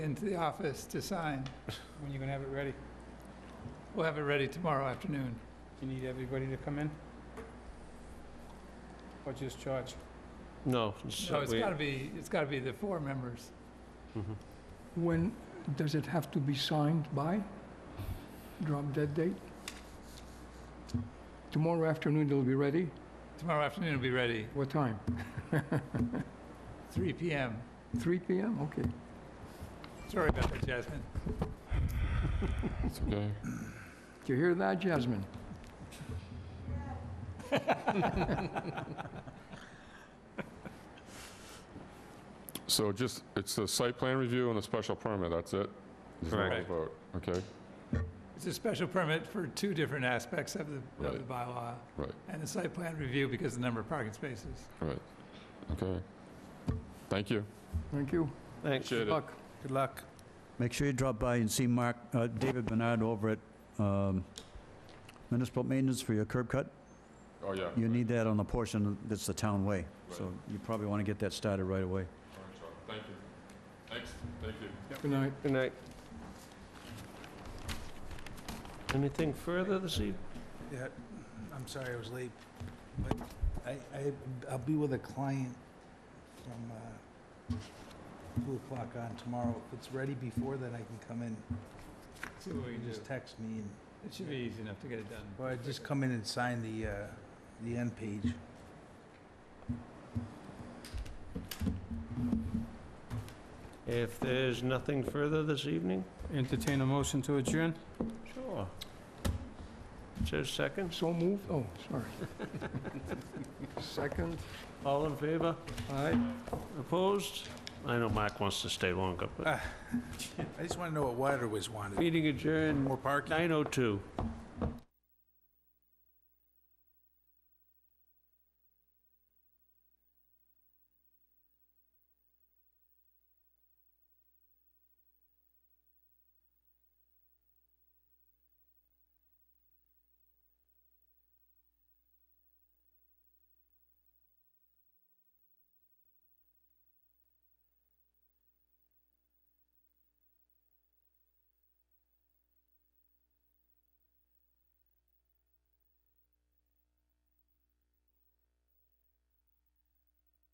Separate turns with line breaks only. into the office to sign.
When you gonna have it ready?
We'll have it ready tomorrow afternoon.
You need everybody to come in? Or just George?
No.
So Oh, it's gotta be, it's gotta be the four members.
Mm-hmm.
When does it have to be signed by? Drop dead date? Tomorrow afternoon it'll be ready?
Tomorrow afternoon will be ready,
What time?
3 PM.
3 PM? Okay.
Sorry about that, Jasmine.
okay.
Did you hear that, Jasmine?
So just, it's a site plan review and a special permit, that's it? There's no
Correct.
vote, Okay,
It's a special permit for two different aspects of the, of the
Right.
bylaw.
Right.
And the site plan review because of the number of parking spaces.
okay. Thank you.
Thank you.
Thanks.
Appreciate it.
Luck.
Good luck.
Make sure you drop by and see Mark, uh, David Bernard over at um, Municipal Maintenance for your curb cut.
Oh, yeah.
You need that on the portion that's the town way, so
Right.
you probably want to get that started right away.
All right, Charlie. Thank you. Thanks, thank you.
Good night.
Good night. Anything further this evening?
Yeah, I'm sorry I was late, but I, I, I'll be with a client from, uh, two o'clock on tomorrow. If it's ready before then, I can come in.
See what we
You
can do.
just text me and,
It should be easy enough to get it done.
or I just come in and sign the, uh, the end page.
If there's nothing further this evening?
Entertain a motion to adjourn?
Sure. Chair seconds?
So moved? Oh, sorry. Second?
All in favor?
Aye.
Opposed? I know Mark wants to stay longer, but
I just want to know what Water was wanted.
meeting adjourned
More parking?
9:02.